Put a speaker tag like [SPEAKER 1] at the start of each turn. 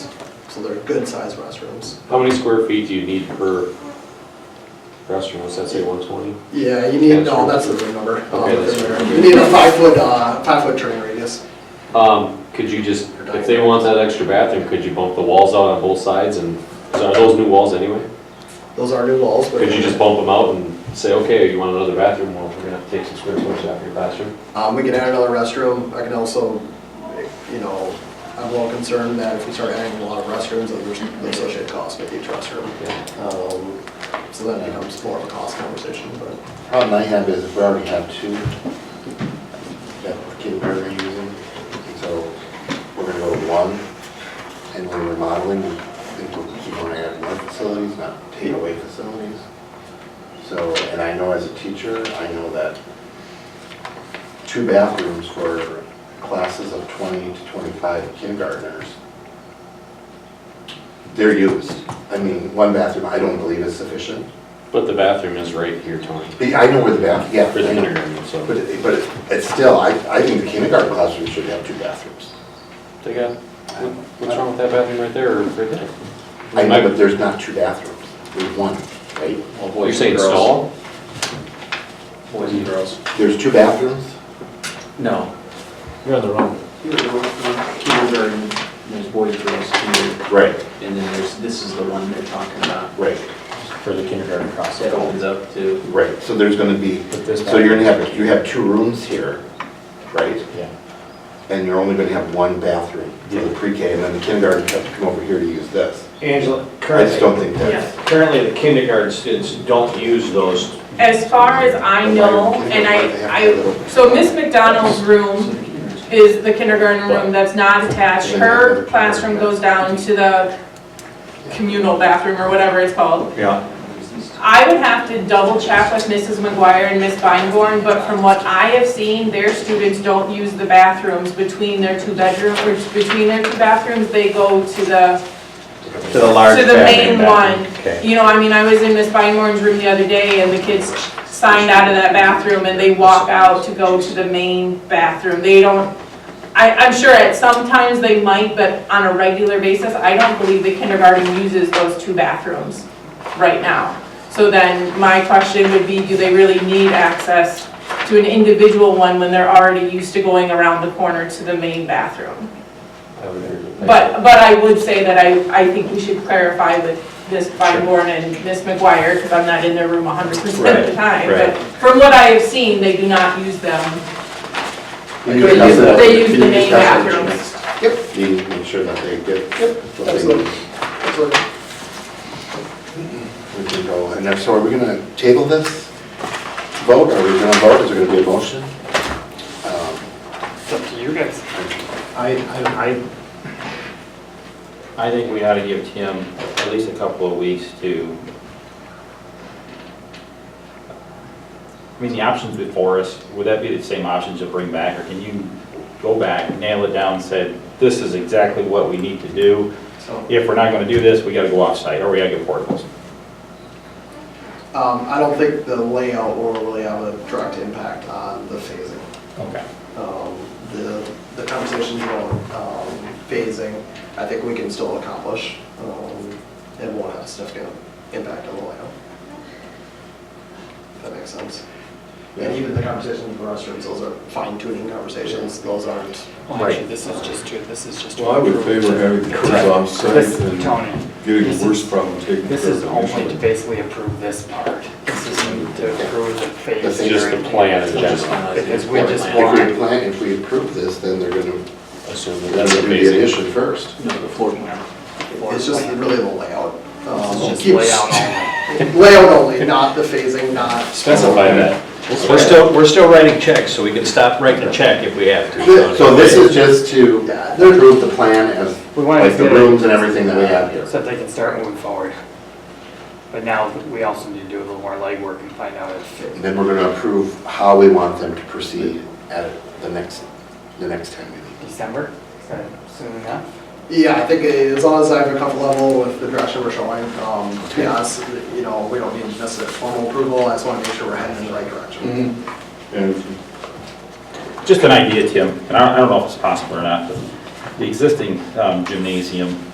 [SPEAKER 1] So they're good-sized restrooms.
[SPEAKER 2] How many square feet do you need per restroom? What's that say, one twenty?
[SPEAKER 1] Yeah, you need, no, that's the room number. Um,
[SPEAKER 2] Okay, that's
[SPEAKER 1] there.
[SPEAKER 2] right.
[SPEAKER 1] You need a five-foot, uh, five-foot turning radius.
[SPEAKER 2] Um, could you just, if they want that extra bathroom, could you bump the walls out on both sides and, are those new walls anyway?
[SPEAKER 1] Those are new walls, but.
[SPEAKER 2] Could you just bump them out and say, okay, you want another bathroom, well, we're gonna have to take some square footage out of your bathroom?
[SPEAKER 1] Um, we can add another restroom. I can also, you know, I'm a little concerned that if we start adding a lot of restrooms, that there's the associated cost with each restroom.
[SPEAKER 2] Yeah.
[SPEAKER 1] Um, so that becomes more of a cost conversation, but,
[SPEAKER 3] Problem I have is if we already have two that kindergarten are using, so we're gonna go to one. And when we're modeling, we think we'll keep on adding more facilities, not take away facilities. So, and I know as a teacher, I know that two bathrooms for classes of twenty to twenty-five kindergartners, they're used. I mean, one bathroom I don't believe is sufficient.
[SPEAKER 2] But the bathroom is right here, Tony,
[SPEAKER 3] The- I know where the bath, yeah.
[SPEAKER 2] for the
[SPEAKER 3] I know.
[SPEAKER 2] kindergarten, so.
[SPEAKER 3] But, it- but it- it's still, I, I think the kindergarten classroom should have two bathrooms.
[SPEAKER 2] They got, what- what's wrong with that bathroom right there or right there?
[SPEAKER 3] I know, but there's not two bathrooms, there's one, right?
[SPEAKER 2] You're saying stall?
[SPEAKER 4] Boys and girls.
[SPEAKER 3] There's two bathrooms?
[SPEAKER 4] No.
[SPEAKER 5] You're on the wrong.
[SPEAKER 4] You're the one- one Kindergarten, there's boys, girls, kindergarten.
[SPEAKER 3] Right,
[SPEAKER 4] And then there's, this is the one they're talking about.
[SPEAKER 3] right,
[SPEAKER 5] For the kindergarten
[SPEAKER 4] That
[SPEAKER 5] process.
[SPEAKER 4] opens up to,
[SPEAKER 3] right. So there's gonna be,
[SPEAKER 5] But this
[SPEAKER 3] so you're gonna have, you have two rooms here, right?
[SPEAKER 5] Yeah.
[SPEAKER 3] And you're only gonna have one bathroom for the pre-K, and then the kindergarten has to come over here to use this.
[SPEAKER 6] Angela,
[SPEAKER 3] I just don't
[SPEAKER 6] currently,
[SPEAKER 3] think that's,
[SPEAKER 6] currently the kindergarten students don't use those.
[SPEAKER 7] As far as I know, and I, I, so Miss McDonald's room is the kindergarten room that's not attached. Her classroom goes down to the communal bathroom or whatever it's called.
[SPEAKER 6] Yeah.
[SPEAKER 7] I would have to double check with Mrs. McGuire and Miss Feinborn, but from what I have seen, their students don't use the bathrooms between their two bedrooms, or between their two bathrooms, they go to the
[SPEAKER 6] To the large
[SPEAKER 7] To the main
[SPEAKER 6] bathroom, bathroom.
[SPEAKER 7] one.
[SPEAKER 6] Okay.
[SPEAKER 7] You know, I mean, I was in Miss Feinborn's room the other day and the kids signed out of that bathroom and they walk out to go to the main bathroom. They don't, I, I'm sure at some times they might, but on a regular basis, I don't believe the kindergarten uses those two bathrooms right now. So then my question would be, do they really need access to an individual one when they're already used to going around the corner to the main bathroom?
[SPEAKER 2] I would agree with that.
[SPEAKER 7] But, but I would say that I, I think we should clarify with Ms. Feinborn and Ms. McGuire, because I'm not in their room hundred percent
[SPEAKER 6] Right,
[SPEAKER 7] of the time.
[SPEAKER 6] right.
[SPEAKER 7] But from what I have seen, they do not use them.
[SPEAKER 3] Can you
[SPEAKER 7] They
[SPEAKER 3] discuss
[SPEAKER 7] use-
[SPEAKER 3] that?
[SPEAKER 7] they use
[SPEAKER 3] Can
[SPEAKER 7] the
[SPEAKER 3] you
[SPEAKER 7] main
[SPEAKER 3] discuss that?
[SPEAKER 7] bathrooms.
[SPEAKER 3] You need to make sure that they get. what they
[SPEAKER 1] absolutely.
[SPEAKER 3] need.
[SPEAKER 1] Absolutely.
[SPEAKER 3] We can go, and then, so are we gonna table this vote, are we gonna vote, is there gonna be a motion? Um,
[SPEAKER 8] It's up to you guys.
[SPEAKER 5] I, I, I, I think we ought to give Tim at least a couple of weeks to, I mean, the options before us, would that be the same options to bring back? Or can you go back, nail it down, said, this is exactly what we need to do?
[SPEAKER 1] So,
[SPEAKER 5] If we're not gonna do this, we gotta go offsite, or we gotta get portables.
[SPEAKER 1] um, I don't think the layout will really have a direct impact on the phasing.
[SPEAKER 5] Okay.
[SPEAKER 1] um, the, the conversations about um, phasing, I think we can still accomplish um, and won't have a significant impact on the layout. If that makes sense. And even the conversations with restaurants, those are fine tuning conversations, those aren't,
[SPEAKER 8] Well, actually, this is just to, this is just. to
[SPEAKER 9] Well, I would
[SPEAKER 8] approve
[SPEAKER 9] favor
[SPEAKER 8] to-
[SPEAKER 9] having the kids
[SPEAKER 8] Correct.
[SPEAKER 9] off site
[SPEAKER 8] This-
[SPEAKER 9] and
[SPEAKER 8] Tony,
[SPEAKER 9] getting
[SPEAKER 8] this
[SPEAKER 9] the worst
[SPEAKER 8] is-
[SPEAKER 9] problem taken care of.
[SPEAKER 8] This is only to
[SPEAKER 9] initially.
[SPEAKER 8] basically approve this part. This isn't to approve the phase.
[SPEAKER 3] This
[SPEAKER 2] is just the plan in general.
[SPEAKER 8] Because we just
[SPEAKER 3] If we
[SPEAKER 8] want.
[SPEAKER 3] plan, if we approve this, then they're gonna,
[SPEAKER 2] Assume that
[SPEAKER 3] they're
[SPEAKER 2] that's
[SPEAKER 3] gonna
[SPEAKER 2] the
[SPEAKER 3] do the
[SPEAKER 2] basic.
[SPEAKER 3] addition first.
[SPEAKER 4] no, the floor plan. Floor
[SPEAKER 1] it's just
[SPEAKER 4] plan.
[SPEAKER 1] really the layout. Um,
[SPEAKER 8] This is just
[SPEAKER 1] keeps-
[SPEAKER 8] layout only.
[SPEAKER 1] Layout only, not the phasing, not.
[SPEAKER 2] Specify that.
[SPEAKER 6] We're still, we're still writing checks, so we can stop writing a check if we have to.
[SPEAKER 1] The-
[SPEAKER 6] Tony.
[SPEAKER 3] So this is just to
[SPEAKER 1] Yeah, they're-
[SPEAKER 3] approve the plan as,
[SPEAKER 8] We wanted
[SPEAKER 3] like the
[SPEAKER 8] to get it-
[SPEAKER 3] rooms and everything that we have here.
[SPEAKER 8] So that they can start moving forward. But now we also need to do a little more legwork and find out if,
[SPEAKER 3] And then we're gonna approve how we want them to proceed at the next, the next time meeting.
[SPEAKER 8] December, is that soon enough?
[SPEAKER 1] Yeah, I think eh, as long as I have a comfort level with the direction we're showing, um, to be honest, you know, we don't need necessarily formal approval, I just want to make sure we're heading in the right direction.
[SPEAKER 9] And
[SPEAKER 5] Just an idea, Tim, and I I don't know if it's possible or not, but the existing um, gymnasium